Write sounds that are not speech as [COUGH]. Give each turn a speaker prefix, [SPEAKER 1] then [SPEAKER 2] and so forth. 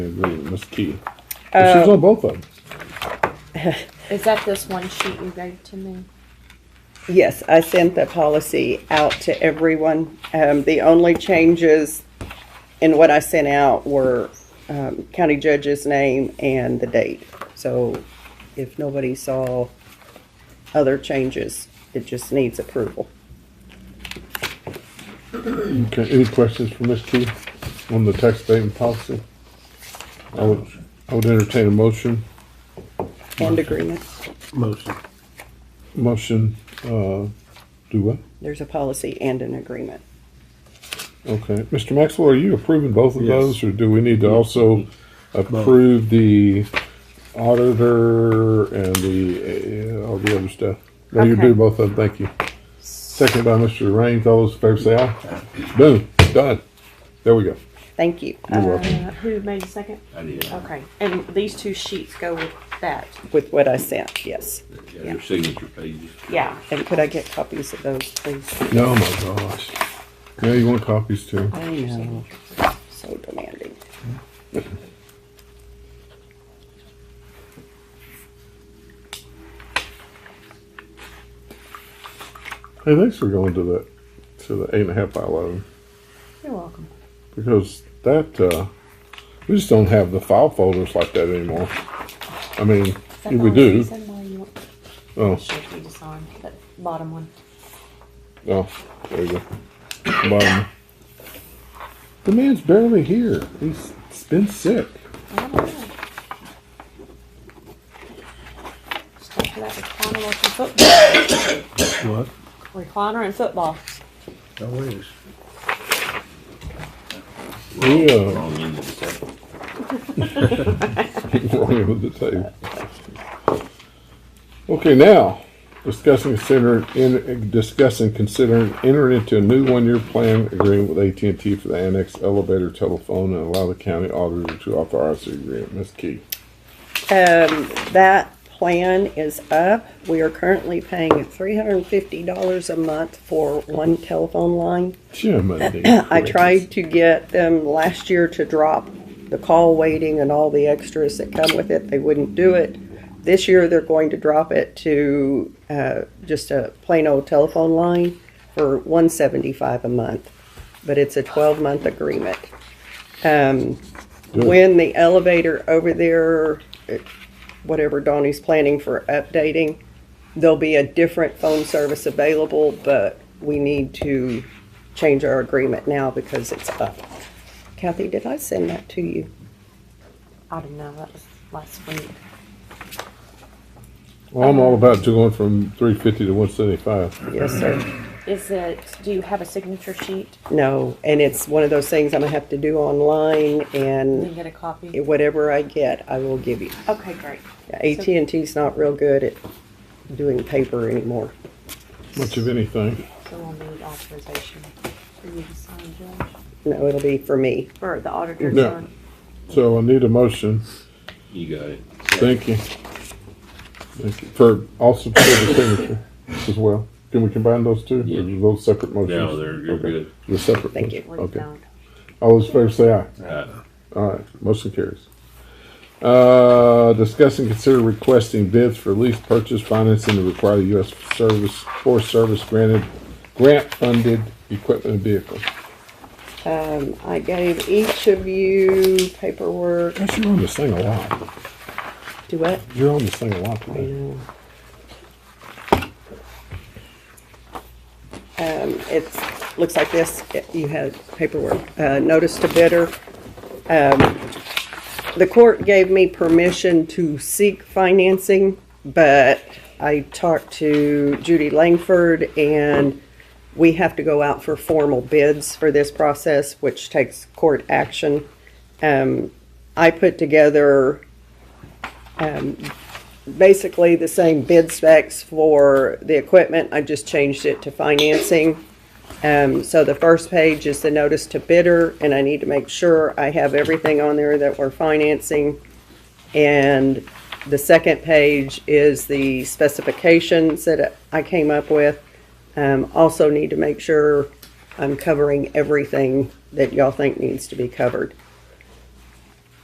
[SPEAKER 1] agree with Ms. Key.
[SPEAKER 2] Uh,
[SPEAKER 1] But she was on both of them.
[SPEAKER 2] Is that this one sheet you gave to me?
[SPEAKER 3] Yes, I sent the policy out to everyone. Um, the only changes in what I sent out were, um, county judge's name and the date. So if nobody saw other changes, it just needs approval.
[SPEAKER 1] Okay, any questions for Ms. Key on the tax abatement policy? I would, I would entertain a motion,
[SPEAKER 3] And agreement.
[SPEAKER 4] Motion.
[SPEAKER 1] motion, uh, do what?
[SPEAKER 3] There's a policy and an agreement.
[SPEAKER 1] Okay, Mr. Maxwell, are you approving both of
[SPEAKER 4] Yes.
[SPEAKER 1] those, or do we need to also approve the auditor and the, uh, all the other stuff? No, you
[SPEAKER 2] Okay.
[SPEAKER 1] do both of them, thank you. Second by Mr. Raines, all those in favor say aye. Boom, done. There we go.
[SPEAKER 3] Thank you.
[SPEAKER 1] You're welcome.
[SPEAKER 2] Uh, Who made the second?
[SPEAKER 4] I did.
[SPEAKER 2] Okay, and these two sheets go with that.
[SPEAKER 3] With what I sent, yes.
[SPEAKER 4] Yeah, Your signature pages.
[SPEAKER 2] Yeah.
[SPEAKER 3] And could I get copies of those, please?
[SPEAKER 1] No, my gosh. Now you want copies too?
[SPEAKER 3] I know. So demanding.
[SPEAKER 1] Hey, thanks for going to that, to the eight and a half by eleven,
[SPEAKER 2] You're welcome.
[SPEAKER 1] because that, uh, we just don't have the file folders like that anymore. I mean,
[SPEAKER 2] Is that the
[SPEAKER 1] we
[SPEAKER 2] one
[SPEAKER 1] do,
[SPEAKER 2] she sent me? You want-
[SPEAKER 1] oh.
[SPEAKER 2] Should we just sign that bottom one?
[SPEAKER 1] Oh, there you go. Bottom. The man's barely here. He's been sick.
[SPEAKER 2] I don't know. Stuff for that recliner with the football,
[SPEAKER 4] What?
[SPEAKER 2] recliner and football.
[SPEAKER 4] Oh, it is.
[SPEAKER 1] Yeah,
[SPEAKER 4] Wrong end of the table.
[SPEAKER 1] wrong end of the table. Okay, now discussing consider in discussing considering entering into a new one-year plan agreement with AT and T for the annex elevator telephone and allow the county auditor to authorize the agreement. Ms. Key.
[SPEAKER 3] Um, that plan is up. We are currently paying three hundred and fifty dollars a month for one telephone line.
[SPEAKER 1] Jiminy.
[SPEAKER 3] [COUGHS] I tried to get them last year to drop the call waiting and all the extras that come with it. They wouldn't do it. This year, they're going to drop it to, uh, just a plain old telephone line for one seventy-five a month. But it's a twelve-month agreement. Um,
[SPEAKER 1] Good.
[SPEAKER 3] when the elevator over there, eh, whatever Donnie's planning for updating, there'll be a different phone service available, but we need to change our agreement now because it's up. Kathy, did I send that to you?
[SPEAKER 2] I don't know, that was last week.
[SPEAKER 1] Well, I'm all about to going from three fifty to one seventy-five.
[SPEAKER 3] Yes, sir.
[SPEAKER 2] Is it, do you have a signature sheet?
[SPEAKER 3] No, and it's one of those things I'm gonna have to do online
[SPEAKER 2] Can you
[SPEAKER 3] and
[SPEAKER 2] get a copy?
[SPEAKER 3] whatever I get, I will give you.
[SPEAKER 2] Okay, great.
[SPEAKER 3] at and ts not real good at doing paper anymore.
[SPEAKER 1] Much of anything.
[SPEAKER 2] So we'll need authorization for you to sign, Judge,
[SPEAKER 3] No, it'll be for me.
[SPEAKER 2] or the auditor to
[SPEAKER 1] No.
[SPEAKER 2] sign.
[SPEAKER 1] So I need a motion.
[SPEAKER 4] You got it.
[SPEAKER 1] Thank you. Thank you. For also for the signature as well. Can we combine those two? Or
[SPEAKER 4] Yeah.
[SPEAKER 1] are Those separate motions?
[SPEAKER 4] No, they're, you're
[SPEAKER 1] Okay.
[SPEAKER 4] good.
[SPEAKER 1] They're separate.
[SPEAKER 3] Thank
[SPEAKER 1] motions.
[SPEAKER 3] you.
[SPEAKER 2] We've
[SPEAKER 1] Okay.
[SPEAKER 2] done.
[SPEAKER 1] All those in favor say aye.
[SPEAKER 4] Alright.
[SPEAKER 1] All right, motion carries. Uh, discuss and consider requesting bids for lease purchase financing to require the U.S. service, Forest Service granted, grant-funded equipment and vehicles.
[SPEAKER 3] Um, I gave each of you paperwork.
[SPEAKER 1] Gosh, you're on this thing a lot.
[SPEAKER 3] Do what?
[SPEAKER 1] You're on this thing a lot
[SPEAKER 3] I
[SPEAKER 1] today.
[SPEAKER 3] know. Um, it looks like this, you had paperwork, uh, notice to bidder. Um, the court gave me permission to seek financing, but I talked to Judy Langford and we have to go out for formal bids for this process, which takes court action. Um, I put together um, basically the same bid specs for the equipment. I just changed it to financing. Um, so the first page is the notice to bidder, and I need to make sure I have everything on there that we're financing. And the second page is the specifications that I came up with. Um, also need to make sure I'm covering everything that y'all think needs to be covered.